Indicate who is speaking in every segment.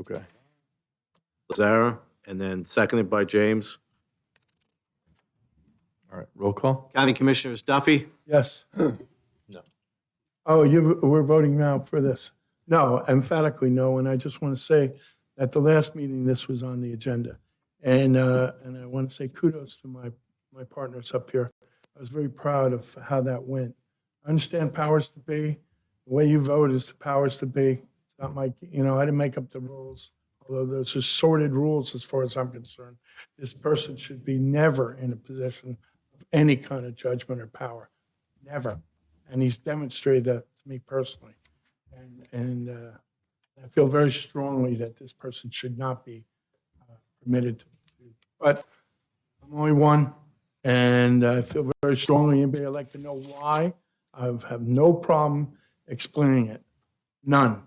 Speaker 1: Okay.
Speaker 2: Lazara, and then seconded by James.
Speaker 1: All right. Roll call?
Speaker 2: County Commissioners Duffy,
Speaker 3: Yes. No. Oh, you, we're voting now for this. No, emphatically no, and I just want to say, at the last meeting, this was on the agenda. And, uh, and I want to say kudos to my, my partners up here. I was very proud of how that went. I understand powers to be, the way you vote is the powers to be. It's Not my, you know, I didn't make up the rules, although those are sordid rules as far as I'm concerned. This person should be never in a position of any kind of judgment or power, never. And he's demonstrated that to me personally. And, and uh, I feel very strongly that this person should not be uh, permitted to. But I'm only one, and I feel very strongly, anybody would like to know why, I have no problem explaining it, none.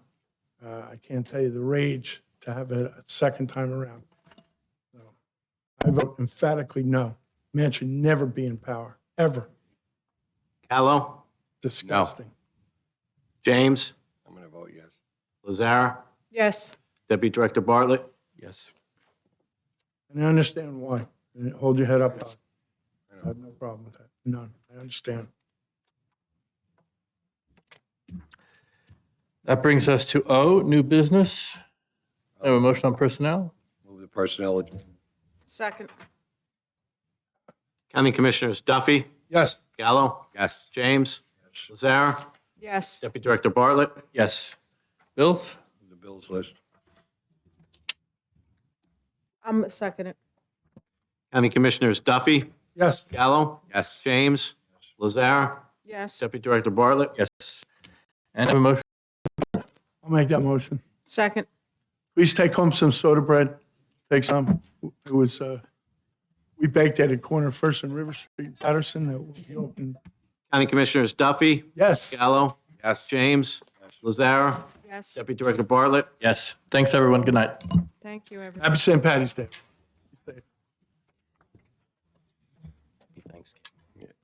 Speaker 3: Uh, I can't tell you the rage to have it a second time around. So, I vote emphatically no. Man should never be in power, ever.
Speaker 2: Callow,
Speaker 3: Disgusting.
Speaker 2: James,
Speaker 4: I'm going to vote yes.
Speaker 2: Lazara,
Speaker 5: Yes.
Speaker 2: Deputy Director Bartlett,
Speaker 1: Yes.
Speaker 3: And I understand why. And hold your head up. Todd. I have no problem with that. None. I understand.
Speaker 1: That brings us to O, new business. I have a motion on personnel.
Speaker 4: Move the personnel. agenda.
Speaker 5: Second.
Speaker 2: County Commissioners Duffy,
Speaker 3: Yes.
Speaker 2: Gallo,
Speaker 4: Yes.
Speaker 2: James, Lazara,
Speaker 5: Yes.
Speaker 2: Deputy Director Bartlett,
Speaker 1: Yes. Bills?
Speaker 4: Move The bills list.
Speaker 5: I'm second it.
Speaker 2: County Commissioners Duffy,
Speaker 3: Yes.
Speaker 2: Gallo,
Speaker 4: Yes.
Speaker 2: James, Lazara,
Speaker 5: Yes.
Speaker 2: Deputy Director Bartlett,
Speaker 1: Yes. And I have a motion.
Speaker 3: I'll make that motion.
Speaker 5: Second.
Speaker 3: Please take home some soda bread. Take some. It was, uh, we baked at a corner of First and River Street, Patterson, that we opened.
Speaker 2: County Commissioners Duffy,
Speaker 3: Yes.
Speaker 2: Gallo,
Speaker 4: Yes.
Speaker 2: James, Lazara,
Speaker 5: Yes.
Speaker 2: Deputy Director Bartlett,
Speaker 1: Yes. Thanks, everyone. Good night.
Speaker 5: Thank you, everyone.
Speaker 3: Happy St. Patty's Day.